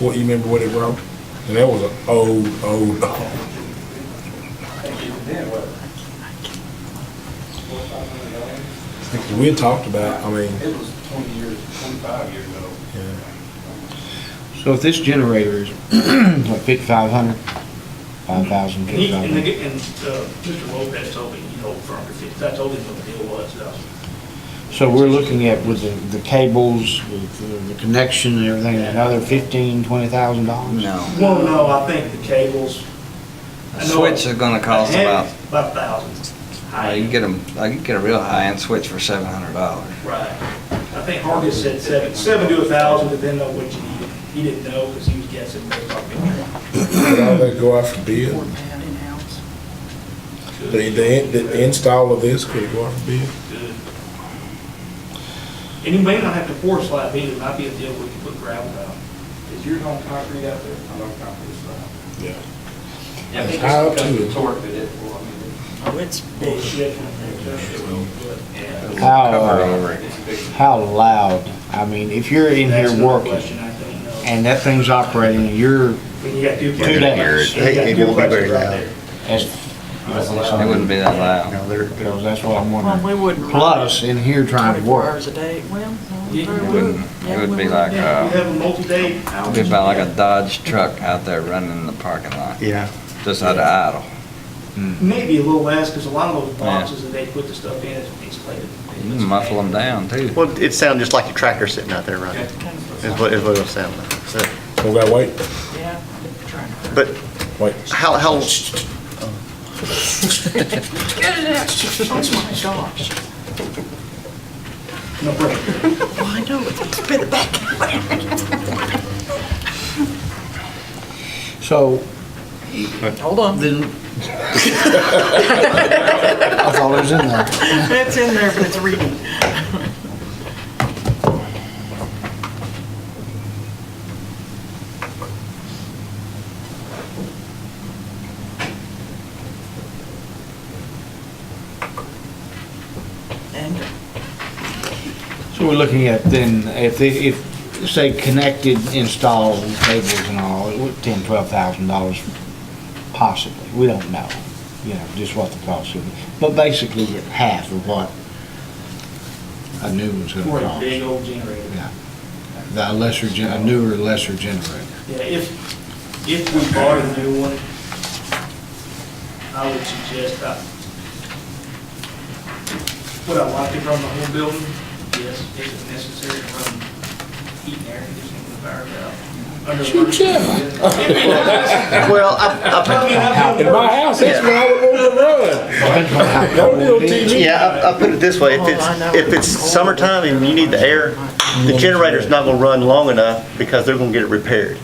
What, you remember what it wrote? And that was an old, old dog. We had talked about, I mean, It was twenty years, twenty-five years ago. yeah. So if this generator is like fifty-five hundred, five thousand, And he, fifty-five and, the hundred, g- and, uh, Mr. Lopez told me, you know, from the fifty, I told him what the deal was, uh, so we're looking at with the, the cables, with the- the connection and everything, another fifteen, twenty thousand dollars? No. well, no, I think the cables. A switch is gonna cost about, About thousands. I can get 'em- I can get a real high-end switch for seven hundred dollars. Right. I think Hargis said seven, seven to a thousand, depending on what you needed. He didn't know, because he was guessing. based off the- Did all that go out for bid? The, the, the install of this, could it go out for bid? And you may not have to pour slab either, it might be a deal where you put gravel down. Is yours on concrete out there? I'm on concrete slab. Yeah. Yeah, I It's think high up it's to because of it. the torque that it, well, I mean, Oh, it's bullshit. How, uh, it's a big. how loud, I mean, if you're in That's here another working question I don't know. and that thing's operating, and you're When you got two two questions. days. You got It two won't be very questions right loud. there. As, It wouldn't be that You loud. know, they're, they're- so that's what I'm Well, we wondering. wouldn't. Plus, in here trying to 24 work, hours a day, well, no, Yeah, you very It well. wouldn't, it Yeah, would we be wouldn't. like, Yeah, you uh, have a multi-day. it'd be about like a Dodge truck out there running in the parking lot, yeah, just out of idle. Maybe a little less, because a lot of those Yeah. boxes that they put the stuff in is insulated. You can muffle them down too. well, it sounded just like a tractor sitting out there running, is what, is what it'll sound like. So, So we gotta wait, Yeah, trying to- But wait. how, how, Get it out. Oh, my gosh. No break. Well, I know, it's spit it back. so Hold on. then. That's all there's in there. It's in there, but it's reading. And So we're looking at then, if, they- if, say, connected, installed cables and all, it would- ten, twelve thousand dollars possibly, we don't know, you know, just what the cost would be. But basically, it's half of what a new one's For gonna a cost. big old generator. Yeah. The lesser, gen- a newer, lesser generator. Yeah, if, if we bought a new one, I would suggest that, would I like to run the whole building? Yes, if it's necessary to run heat and air conditioning with a fire valve. Under emergency- well, I, I, I mean, I've In done my worse. house, that's where I would want to run. Depends on how No cold little it is. TV. Yeah, I- I put it this way, if it's, if it's summertime and you need the air, the generator's not gonna run long enough because they're gonna get it repaired.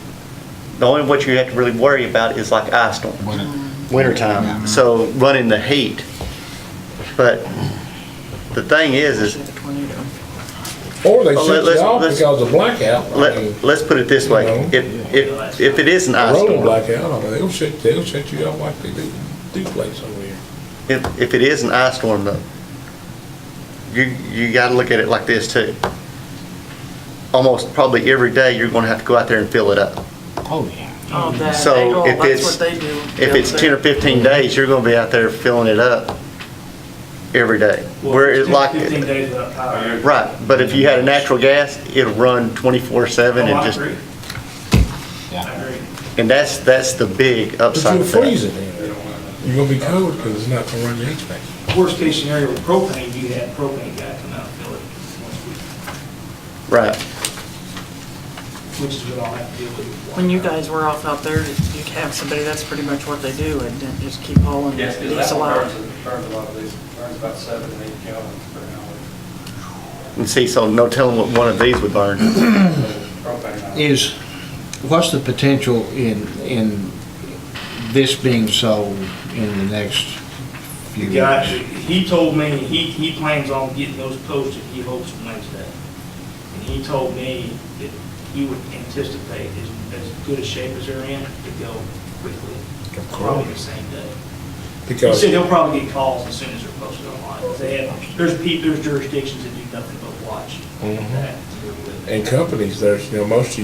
The only what you have to really worry about is like ice storm, When it- wintertime, so running the heat. But the thing is, is the tornado. Or they Well, shut let's- you off let's- because of blackout. I mean, let, let's put it this way, if, if, if it is an ice Rolling storm, blackout, I mean, they'll shut, they'll shut you off like they do, do place over here. if, if it is an ice storm though, you, you gotta look at it like this too. Almost probably every day, you're gonna have to go out there and fill it up. Oh, yeah. Oh, that, So they go, if that's it's- what they do. If it's 10 or 15 days, you're going to be out there filling it up every day. Where it's like, Fifteen days without Oh, power. right, but if you had a natural gas, it'll run 24/7 Oh, and I just, agree, Yeah. I agree. and that's, that's the big But upside you're of that. freezing in. You're gonna be cold because it's not gonna run the HVAC. Worst case scenario with propane, you have propane guy come out and fill it once a week, Right. which is what I'll have to deal with. When you guys were off out there, you have somebody, that's pretty much what they do, and then just keep hauling. Yes, because It's that a one lot. burns, a- burns a lot of these, burns about seven, eight gallons per hour. And see, so no telling what one of these would burn. Propane. Is, what's the potential in, in this being sold in the next few The years? guy, he told me, he, he plans on getting those posted, he hopes Wednesday. And he told me that he would anticipate as, as good a shape as they're in to go quickly. Probably the same day. He Because said he'll probably get calls as soon as they're posted online. 'cause They have, there's pe, there's jurisdictions that do nothing but watch Mhm. that. in companies, there's, you know, most of